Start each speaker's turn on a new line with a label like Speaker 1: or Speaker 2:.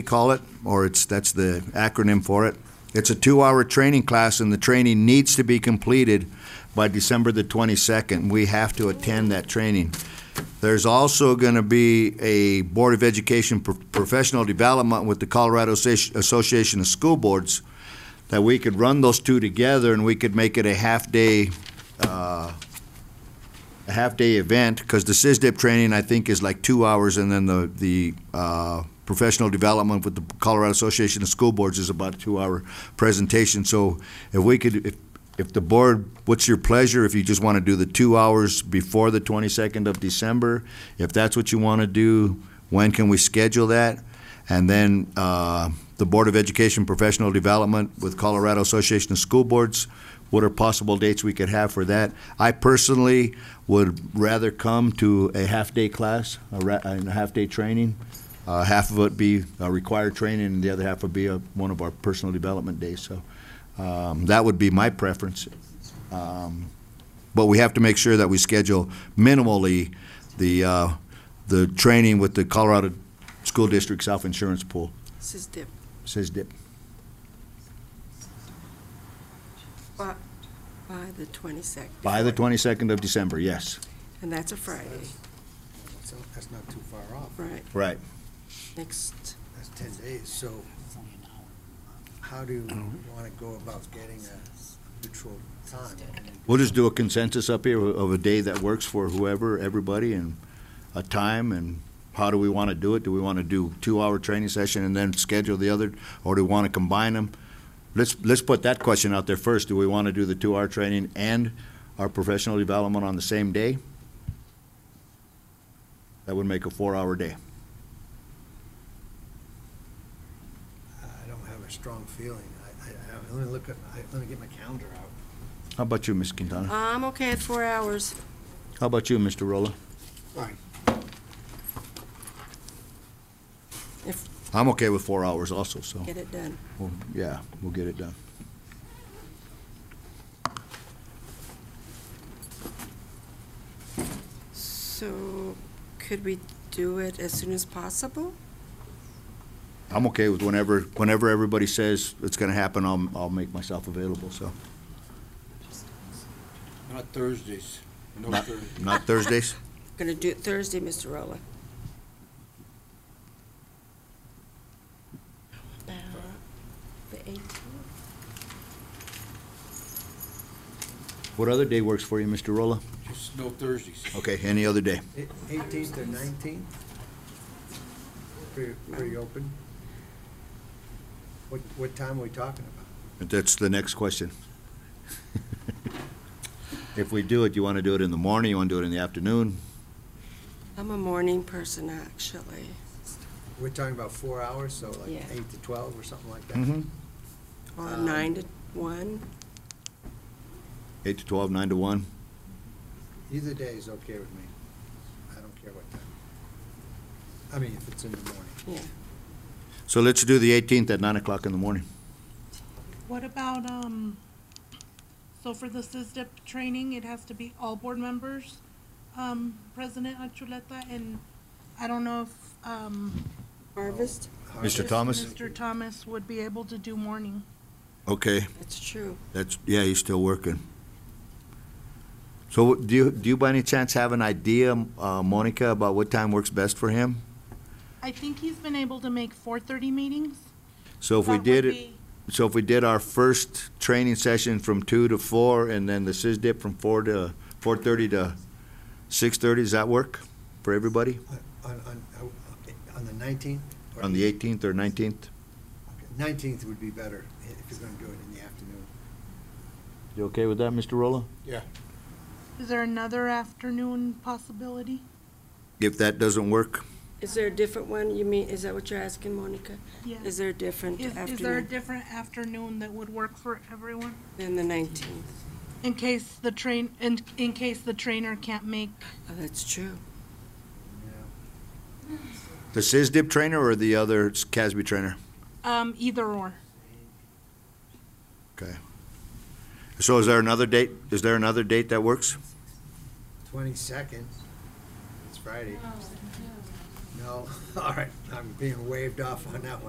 Speaker 1: we call it, or it's, that's the acronym for it. It's a two-hour training class, and the training needs to be completed by December the 22nd. We have to attend that training. There's also going to be a Board of Education pro- Professional Development with the Colorado Associ- Association of School Boards, that we could run those two together, and we could make it a half-day, uh, a half-day event, because the SISDIP training, I think, is like two hours, and then the, the uh, professional development with the Colorado Association of School Boards is about a two-hour presentation. So if we could, if, if the board, what's your pleasure, if you just want to do the two hours before the 22nd of December, if that's what you want to do, when can we schedule that? And then uh, the Board of Education Professional Development with Colorado Association of School Boards, what are possible dates we could have for that? I personally would rather come to a half-day class, a ra- and a half-day training. Uh, Half of it be uh, required training, and the other half would be uh, one of our personal development days. So um, that would be my preference. Um, But we have to make sure that we schedule minimally the, uh, the training with the Colorado School District Self-Insurance Pool,
Speaker 2: This is dip.
Speaker 1: says DIP.
Speaker 2: By the 22nd.
Speaker 1: By the 22nd of December, yes.
Speaker 2: And that's a Friday,
Speaker 3: So that's not too far off.
Speaker 2: right,
Speaker 1: Right.
Speaker 2: next,
Speaker 3: That's ten days, so how do you want to go about getting a neutral time?
Speaker 1: We'll just do a consensus up here of a day that works for whoever, everybody, and a time, and how do we want to do it? Do we want to do two-hour training session and then schedule the other, or do we want to combine them? Let's, let's put that question out there first. Do we want to do the two-hour training and our professional development on the same day? That would make a four-hour day.
Speaker 3: I don't have a strong feeling. I, I, I- let me look at, I- let me get my calendar out.
Speaker 1: How about you, Ms. Quintana?
Speaker 2: I'm okay at four hours.
Speaker 1: How about you, Mr. Rolla?
Speaker 3: Fine.
Speaker 1: I'm okay with four hours also, so,
Speaker 2: Get it done.
Speaker 1: we'll- yeah, we'll get it done.
Speaker 2: So could we do it as soon as possible?
Speaker 1: I'm okay with whenever, whenever everybody says it's gonna happen, I'll, I'll make myself available, so.
Speaker 4: Not Thursdays. No
Speaker 1: Not-
Speaker 4: Thursdays.
Speaker 1: Not Thursdays?
Speaker 2: Going to do it Thursday, Mr. Rowland. About The 18th?
Speaker 1: What other day works for you, Mr. Rolla?
Speaker 4: Just no Thursdays.
Speaker 1: Okay, any other day.
Speaker 3: Eighteenth or nineteenth? Pretty, pretty open? What, what time are we talking about?
Speaker 1: That's the next question. If we do it, you wanna do it in the morning, you wanna do it in the afternoon?
Speaker 2: I'm a morning person, actually.
Speaker 3: We're talking about four hours, so like
Speaker 2: Yeah.
Speaker 3: eight to twelve or something like that?
Speaker 1: Mm-hmm.
Speaker 4: Mm-hmm.
Speaker 2: Or
Speaker 3: Um,
Speaker 2: nine to one,
Speaker 1: Eight to twelve, nine to one?
Speaker 3: Either day is okay with me. I don't care what time. I mean, if it's in the morning.
Speaker 2: yeah.
Speaker 1: So let's do the eighteenth at nine o'clock in the morning.
Speaker 5: What about, um, so for the SISDIP training, it has to be all board members, um, President Achuleta, and I don't know if, um.
Speaker 2: Harvest?
Speaker 1: Mr. Thomas?
Speaker 5: Mr. Thomas would be able to do morning.
Speaker 1: Okay,
Speaker 2: That's true.
Speaker 1: that's, yeah, he's still working. So do you, do you by any chance have an idea, uh, Monica, about what time works best for him?
Speaker 5: I think he's been able to make four thirty meetings.
Speaker 1: So if we
Speaker 5: That would
Speaker 1: did it.
Speaker 5: be-
Speaker 1: So if we did our first training session from two to four, and then the SISDIP from four to, four-thirty to six-thirty, does that work for everybody?
Speaker 3: On, on, uh, on the nineteenth?
Speaker 1: On the eighteenth or nineteenth?
Speaker 3: Nineteenth would be better if you're gonna do it in the afternoon.
Speaker 1: You okay with that, Mr. Rolla?
Speaker 5: Is there another afternoon possibility?
Speaker 1: If that doesn't work,
Speaker 2: Is there a different one? You mean, is that what you're asking, Monica?
Speaker 5: Yes.
Speaker 2: Is there a different
Speaker 5: Is, is there a
Speaker 2: afternoon
Speaker 5: different afternoon that would work for everyone?
Speaker 2: than the 19th?
Speaker 5: In case the train, in, in case the trainer can't make
Speaker 2: Oh, that's true.
Speaker 1: the SISDIP trainer or the other CASB trainer?
Speaker 5: Um, either or.
Speaker 1: So is there another date, is there another date that works?
Speaker 3: Twenty-second, it's Friday. No, all right, I'm being waved off on that one.